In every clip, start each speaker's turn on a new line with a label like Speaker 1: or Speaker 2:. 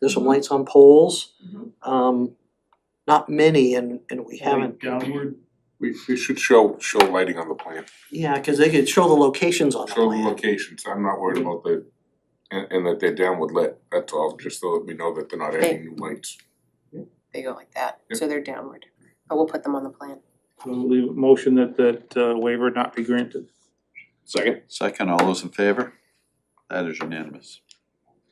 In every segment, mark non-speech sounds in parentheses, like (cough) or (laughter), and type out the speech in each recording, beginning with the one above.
Speaker 1: There's some lights on poles.
Speaker 2: Mhm.
Speaker 1: Um, not many and and we haven't,
Speaker 3: Going downward,
Speaker 4: We we should show show lighting on the plan,
Speaker 1: yeah, cause they could show the locations on the
Speaker 4: show the
Speaker 1: plan.
Speaker 4: locations, I'm not worried about the and and that they're downward lit, that's all, just so that we know that they're not adding new lights.
Speaker 5: They go like that, so they're downward, but we'll put them on the plan.
Speaker 3: so we'll leave a motion that that uh, waiver not be granted.
Speaker 6: Second.
Speaker 7: Second, all those in favor? That is unanimous.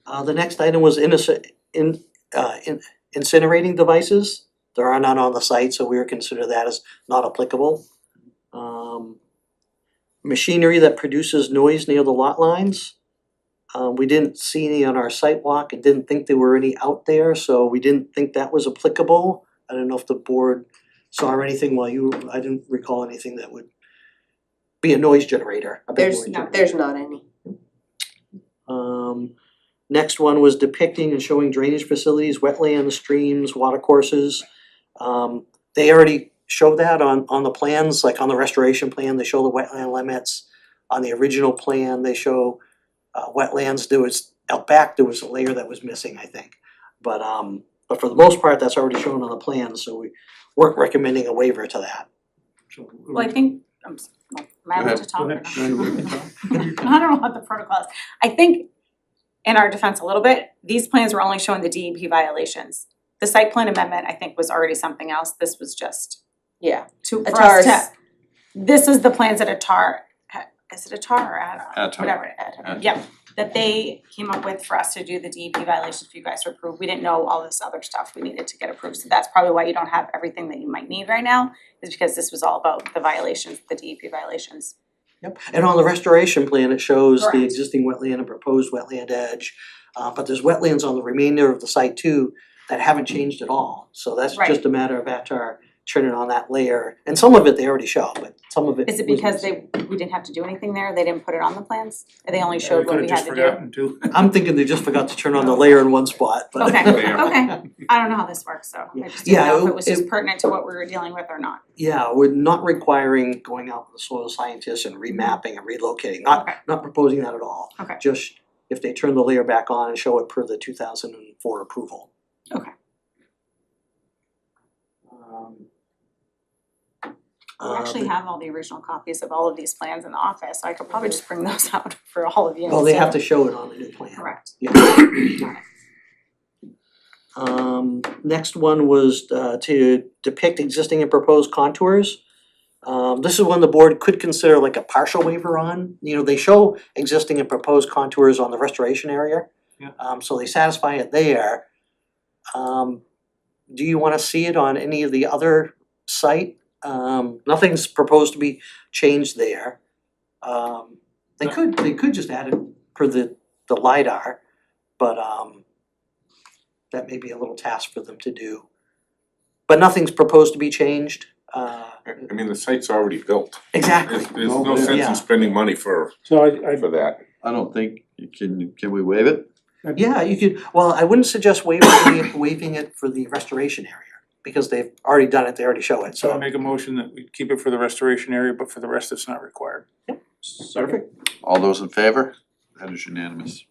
Speaker 1: Uh, the next item was innocent, in, uh, in- incinerating devices. There are none on the site, so we would consider that as not applicable. Um, machinery that produces noise near the lot lines. Uh, we didn't see any on our site walk and didn't think there were any out there, so we didn't think that was applicable. I don't know if the board saw anything while you, I didn't recall anything that would be a noise generator, a big
Speaker 5: There's
Speaker 1: noise generator.
Speaker 5: not, there's not any.
Speaker 1: Um, next one was depicting and showing drainage facilities, wetlands, streams, watercourses. Um, they already showed that on, on the plans, like on the restoration plan, they show the wetland limits. On the original plan, they show, uh, wetlands, there was, out back, there was a layer that was missing, I think. But, um, but for the most part, that's already shown on the plan, so we weren't recommending a waiver to that.
Speaker 3: So,
Speaker 2: Well, I think, I'm, s- well, am I allowed
Speaker 3: Go
Speaker 2: to talk?
Speaker 3: ahead.
Speaker 2: I (laughs) don't know what the protocol is. I think, in our defense a little bit, these plans were only showing the DEP violations. The site plan amendment, I think, was already something else. This was just
Speaker 5: Yeah,
Speaker 2: to,
Speaker 5: A
Speaker 2: for
Speaker 5: TAR's.
Speaker 2: us to, this is the plans that Atar, ha- is it Atar or Adar?
Speaker 7: Atar.
Speaker 2: Whatever, Atar, yeah, that they came up with for us to do the DEP violations for you guys to approve. We didn't know all this other stuff we needed to get approved, so that's probably why you don't have everything that you might need right now, is because this was all about the violations, the DEP violations.
Speaker 1: Yep, and on the restoration plan, it shows the
Speaker 2: Correct.
Speaker 1: existing wetland and proposed wetland edge. Uh, but there's wetlands on the remainder of the site too that haven't changed at all, so that's
Speaker 2: Right.
Speaker 1: just a matter of Atar turning on that layer. And some of it they already show, but some of it.
Speaker 2: Is it
Speaker 1: was
Speaker 2: because
Speaker 1: missing.
Speaker 2: they, we didn't have to do anything there, they didn't put it on the plans, Or they only
Speaker 3: We
Speaker 2: showed what
Speaker 3: could
Speaker 2: we
Speaker 3: have
Speaker 2: had
Speaker 3: just
Speaker 2: to do?
Speaker 3: forgotten to.
Speaker 1: I'm thinking they just forgot to turn on the layer in one spot, but. (laughs)
Speaker 2: Okay,
Speaker 3: (laughs)
Speaker 4: Yeah.
Speaker 2: okay, I don't know how this works, so I just didn't
Speaker 1: Yeah,
Speaker 2: know if
Speaker 1: it-
Speaker 2: it was just pertinent to what we were dealing with or not.
Speaker 1: Yeah, we're not requiring going out with the soil scientists and remapping and relocating, not
Speaker 2: Okay.
Speaker 1: not proposing that at all.
Speaker 2: Okay.
Speaker 1: Just if they turn the layer back on and show it per the two thousand and four approval.
Speaker 2: Okay.
Speaker 1: Um,
Speaker 2: I actually
Speaker 1: um,
Speaker 2: have all the original copies of all of these plans in the office, so I could probably just bring those (laughs) out for all of you.
Speaker 1: Well, they have
Speaker 2: instead.
Speaker 1: to show it on the new plan.
Speaker 2: Correct.
Speaker 1: (clears throat) Yeah. Um, next one was uh to depict existing and proposed contours. Um, this is one the board could consider like a partial waiver on, you know, they show existing and proposed contours on the restoration area.
Speaker 3: Yeah.
Speaker 1: Um, so they satisfy it there. Um, do you wanna see it on any of the other site? Um, nothing's proposed to be changed there. Um, they could, they could just add it for the the LiDAR, but um that may be a little task for them to do. But nothing's proposed to be changed, uh
Speaker 4: I I mean, the site's already built,
Speaker 1: exactly,
Speaker 4: there's there's no sense
Speaker 1: Yeah.
Speaker 4: in spending money for
Speaker 3: So I I
Speaker 4: for that.
Speaker 7: I don't think, can, can we waive it?
Speaker 1: yeah, you could, well, I wouldn't suggest waiving it, waiving it for the restoration area, because they've already done it, they already show it,
Speaker 3: so I
Speaker 1: so.
Speaker 3: make a motion that we keep it for the restoration area, but for the rest, it's not required.
Speaker 1: Perfect.
Speaker 7: All those in favor? That is unanimous.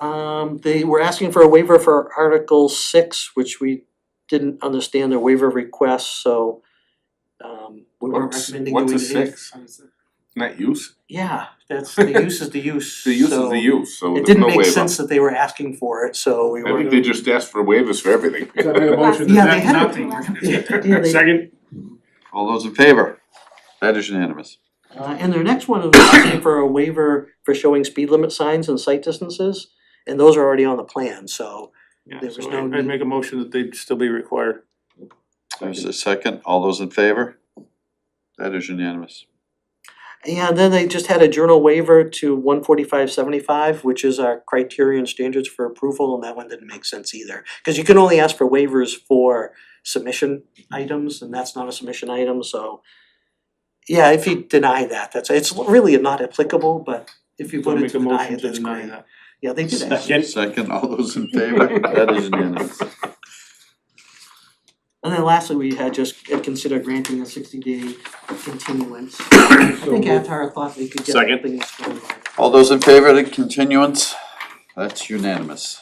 Speaker 1: Um they were asking for a waiver for Article six, which we didn't understand their waiver request, so um we weren't
Speaker 4: What's
Speaker 1: recommending doing
Speaker 4: what's a
Speaker 1: it.
Speaker 4: six? Not use,
Speaker 1: Yeah, that's, the use
Speaker 4: (laughs)
Speaker 1: is the use,
Speaker 4: the use is
Speaker 1: so-
Speaker 4: the use, so
Speaker 1: It
Speaker 4: there's
Speaker 1: didn't
Speaker 4: no
Speaker 1: make
Speaker 4: waiver.
Speaker 1: sense that they were asking for it, so we
Speaker 4: I
Speaker 1: were,
Speaker 4: think they just asked for waivers for everything.
Speaker 3: So I make a motion
Speaker 1: Yeah,
Speaker 3: that
Speaker 1: they had
Speaker 3: that's
Speaker 1: it. (laughs)
Speaker 3: nothing.
Speaker 1: Yeah, they-
Speaker 3: Second,
Speaker 7: All those in favor? That is unanimous.
Speaker 1: uh, and their next one was asking for a waiver for showing speed limit signs and sight distances. And those are already on the plan, so,
Speaker 3: yeah,
Speaker 1: There was
Speaker 3: so
Speaker 1: no
Speaker 3: I-
Speaker 1: need.
Speaker 3: I'd make a motion that they'd still be required.
Speaker 7: There's a second, all those in favor? That is unanimous.
Speaker 1: and then they just had a journal waiver to one forty-five seventy-five, which is our criterion standards for approval, and that one didn't make sense either. Cause you can only ask for waivers for submission items, and that's not a submission item, so. Yeah, if you deny that, that's, it's really not applicable, but if you
Speaker 3: So I
Speaker 1: voted
Speaker 3: make
Speaker 1: to
Speaker 3: a
Speaker 1: deny
Speaker 3: motion
Speaker 1: it,
Speaker 3: to
Speaker 1: that's
Speaker 3: deny
Speaker 1: great.
Speaker 3: that.
Speaker 1: Yeah, they did ask.
Speaker 3: Second.
Speaker 7: Second, all those in favor? That is unanimous.
Speaker 1: And then lastly, we had just considered granting a sixty day continuance. I think Avatar thought we could get
Speaker 6: Second.
Speaker 1: things going.
Speaker 7: All those in favor of the continuance? That's unanimous.